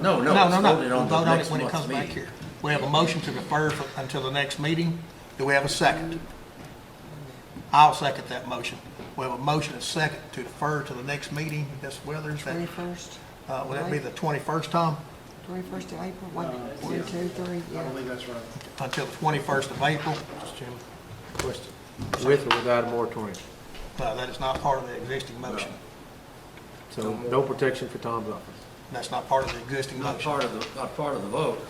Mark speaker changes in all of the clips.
Speaker 1: No, no,
Speaker 2: No,
Speaker 1: it's
Speaker 2: no, no.
Speaker 1: voted
Speaker 2: We'll
Speaker 1: on the
Speaker 2: vote on it
Speaker 1: next
Speaker 2: when it
Speaker 1: month's
Speaker 2: comes back
Speaker 1: meeting.
Speaker 2: here. We have a motion to defer for- until the next meeting. Do we have a second? I'll second that motion. We have a motion and a second to defer to the next meeting, Ms. Weathers. that-
Speaker 3: Twenty-first,
Speaker 2: uh, Would that be the 21st, Tom?
Speaker 3: twenty-first of April, one, one, two, three,
Speaker 4: I
Speaker 3: yeah.
Speaker 4: believe that's right.
Speaker 2: Until the 21st of April? Mr. Chairman. Question.
Speaker 5: with or without a moratorium.
Speaker 2: No, that is not part of the existing motion.
Speaker 5: So no protection for Tom's office.
Speaker 2: That's not part of the existing
Speaker 1: Not
Speaker 2: motion.
Speaker 1: part of the, not part of the vote.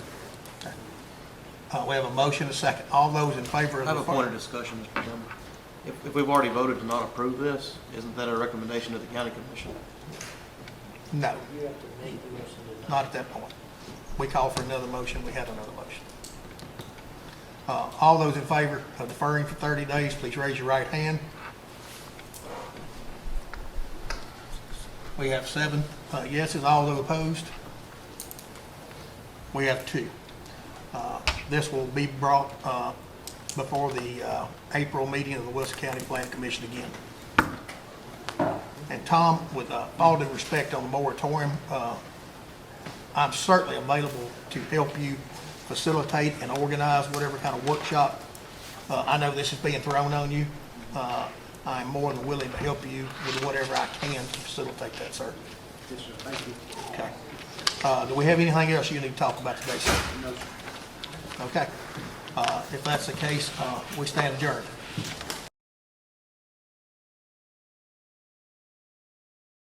Speaker 2: Uh, We have a motion and a second. All those in favor
Speaker 6: I
Speaker 2: of
Speaker 6: have a point of
Speaker 2: defer?
Speaker 6: discussion, Mr. Chairman. If, if we've already voted to not approve this, isn't that a recommendation to the county commission?
Speaker 2: No. Not at that point. We call for another motion, we have another motion. Uh, All those in favor of deferring for 30 days, please raise your right hand. We have seven uh, yeses, all those opposed? We have two. Uh, This will be brought uh, before the uh, April meeting of the Wilson County Plan Commission again. And Tom, with uh, all due respect on the moratorium, uh, I'm certainly available to help you facilitate and organize whatever kind of workshop. Uh, I know this is being thrown on you. Uh, I'm more than willing to help you with whatever I can to facilitate that, sir.
Speaker 4: Yes, sir, thank you.
Speaker 2: Okay. Uh, Do we have anything else you need to talk about today, sir?
Speaker 4: No, sir.
Speaker 2: Okay. Uh, If that's the case, uh, we stand adjourned.